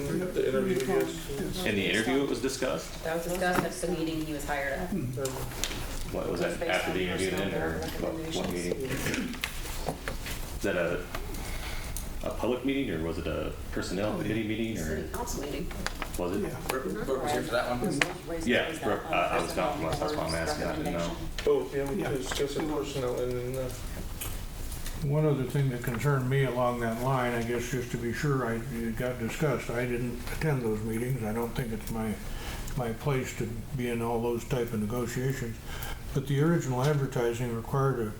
interview, yes. In the interview, it was discussed? That was discussed at the meeting he was hired at. What, was that after the interview then, or what, what meeting? Is that a, a public meeting, or was it a personnel committee meeting, or City council meeting. was it? Brooke Brooke was here for that one. Mm. Yeah, Brooke, I- I was not from last, that's why I'm asking, I didn't know. Both, yeah, we discussed it personnel and, uh, One other thing that concerned me along that line, I guess, just to be sure, I, it got discussed, I didn't attend those meetings, I don't think it's my, my place to be in all those type of negotiations, but the original advertising required a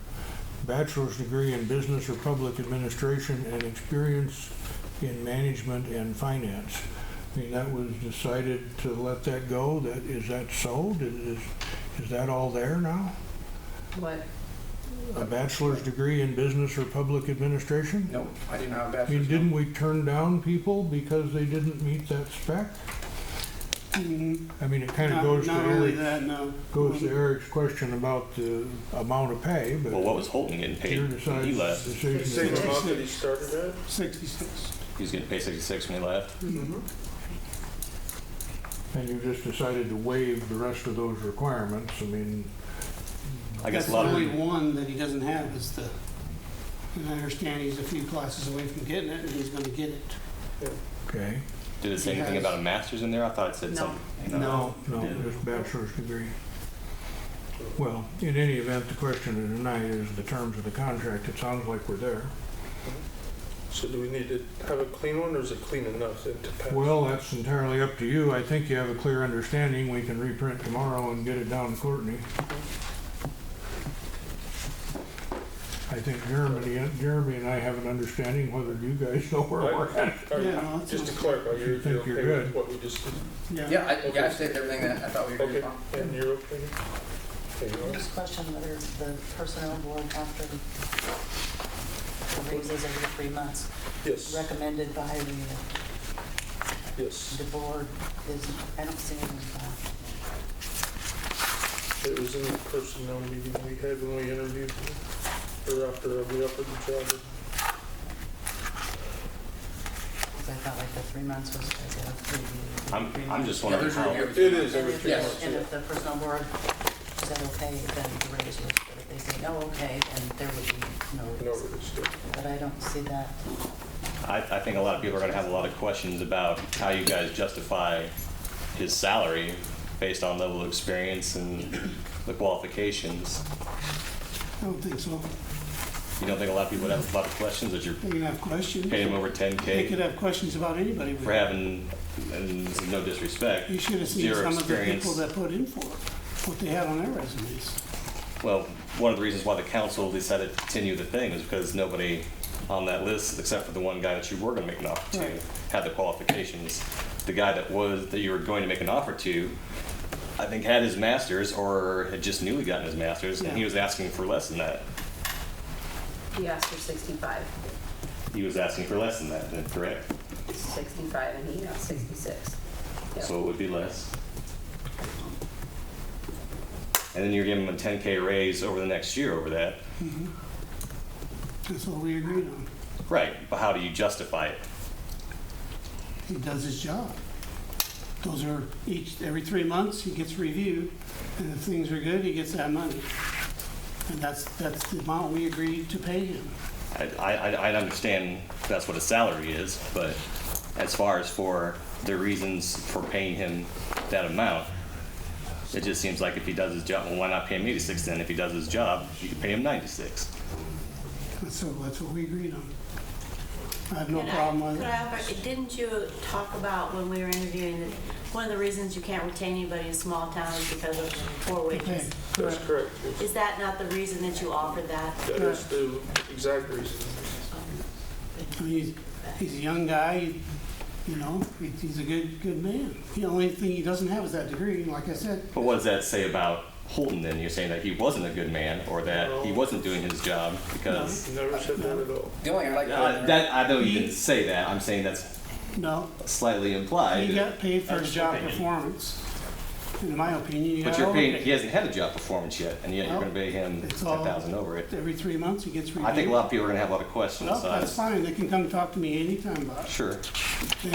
bachelor's degree in business or public administration and experience in management and finance. I mean, that was decided to let that go, that, is that so? Did- Is, is that all there now? What? A bachelor's degree in business or public administration? Nope, I didn't have a I mean, bachelor's. didn't we turn down people because they didn't meet that spec? Mhm. I mean, it kind of Not goes to not only Eric, that, um, no. goes to Eric's question about the amount of pay, but Well, what was Holton getting paid your when he decides- left? decision. same is- amount that he started at. Sixty-six. He was getting paid sixty-six when he left? Mm-hmm. And you just decided to waive the rest of those requirements, I mean, I guess a lot That's of, only re- one that he doesn't have is the, and I understand he's a few classes away from getting it and he's gonna get it. okay? did it say anything about a master's in there? I thought it said No. something. No. No, Yeah. just bachelor's degree. Well, in any event, the question tonight is the terms of the contract, it sounds like we're there. So do we need to have a clean one, or is it clean enough to to pass? Well, that's entirely up to you. I think you have a clear understanding. We can reprint tomorrow and get it down to Courtney. I think Jeremy, Jeremy and I have an understanding whether you guys know where we're at. All right, Yeah, no, that's Just to fine. clarify, you're, Think you're okay you're with good. what we just, Yeah, I, yeah, I stated everything that I thought we agreed okay, upon. and you're okay? There you are. Just question whether the personnel board after the raises over the three months Yes, recommended by the, yes, the board is, I don't see anything. about it was in the personnel meeting we had when we interviewed, him, or after we offered the job. it, Because I felt like the three months was like a preview. I'm, I'm just Yeah, wondering there's how, review. It is And every if, three Yes. months, and yeah. if the personnel board said okay, then the raise was, but if they say no, okay, then there would be No, no raise. it's, But I don't see that. I, I think a lot of people are gonna have a lot of questions about how you guys justify his salary based on level of experience and the qualifications. I don't think so. You don't think a lot of people would have a lot of questions that you're They can have questions. paying him over ten They could K have questions about anybody. for having, and this is no disrespect, You should have seen zero some of the experience. people that put in for it, what they had on their resumes. Well, one of the reasons why the council decided to continue the thing is because nobody on that list, except for the one guy that you were gonna make an offer to, Right. had the qualifications. The guy that was, that you were going to make an offer to, I think had his masters or had just newly gotten his masters, and he Yeah. was asking for less than that. He asked for 65, He was asking for less than that, then, correct? 65, and he got 66. Yep. So it would be less. And then you're giving him a ten K raise over the next year over that. That's all we agreed on. Right, but how do you justify it? He does his job. Those are each, every three months, he gets reviewed, and if things are good, he gets that money. And that's, that's the amount we agreed to pay him. I, I, I understand that's what his salary is, but as far as for the reasons for paying him that amount, it just seems like if he does his job, well, why not pay him 86 then? If he does his job, you could pay him 96. That's so that's what we agreed on. I have no problem with Could it. I offer- Didn't you talk about when we were interviewing, that one of the reasons you can't retain anybody in small towns is because of poor Okay, wages? that's correct, It's- Is that not the reason that you offered that? that is the exact reason. I mean, he's, he's a young guy, he- you know, he- he's a good, good man. The only thing he doesn't have is that degree, like I said. But what does that say about Holton then? You're saying that he wasn't a good man or that he wasn't doing his job because. Never said that at all. The only thing I like. Uh, that I know you didn't say that. I'm saying that's No, slightly implied. he got paid for his That's job opinion. performance. In my opinion, you but got you're paying. He overpaid. hasn't had a job performance yet, and yet you're Well, going to pay him it's all- 10,000 over it. Every three months, he gets reviewed. I think a lot of people are going to have a lot of questions. Well, so I- that's fine, they can come talk to me anytime about it. Sure. They